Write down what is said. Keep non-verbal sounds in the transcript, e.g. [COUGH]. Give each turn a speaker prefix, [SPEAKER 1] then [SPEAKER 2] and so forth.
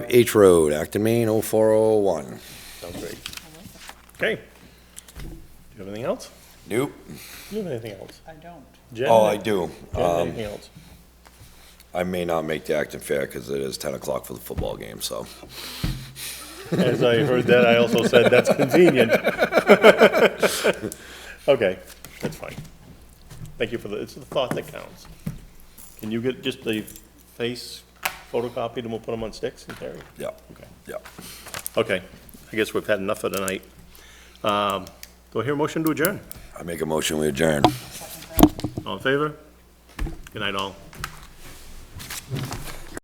[SPEAKER 1] H Road, Acton, Maine, 0401.
[SPEAKER 2] Sounds great. Okay. Do you have anything else?
[SPEAKER 1] Nope.
[SPEAKER 2] Do you have anything else?
[SPEAKER 3] I don't.
[SPEAKER 2] Jen,
[SPEAKER 1] Oh, I do.
[SPEAKER 2] Jen, anything else?
[SPEAKER 1] I may not make the Acton Fair because it is 10 o'clock for the football game, so.
[SPEAKER 2] As I heard that, I also said, that's convenient. [LAUGHS] Okay, that's fine. Thank you for the, it's the thought that counts. Can you get just the face photocopied and we'll put them on sticks and carry?
[SPEAKER 1] Yeah,
[SPEAKER 2] Okay.
[SPEAKER 1] yeah.
[SPEAKER 2] Okay, I guess we've had enough for tonight. Um, Do I hear a motion to adjourn?
[SPEAKER 1] I make a motion, we adjourn.
[SPEAKER 2] All in favor? Good night, all.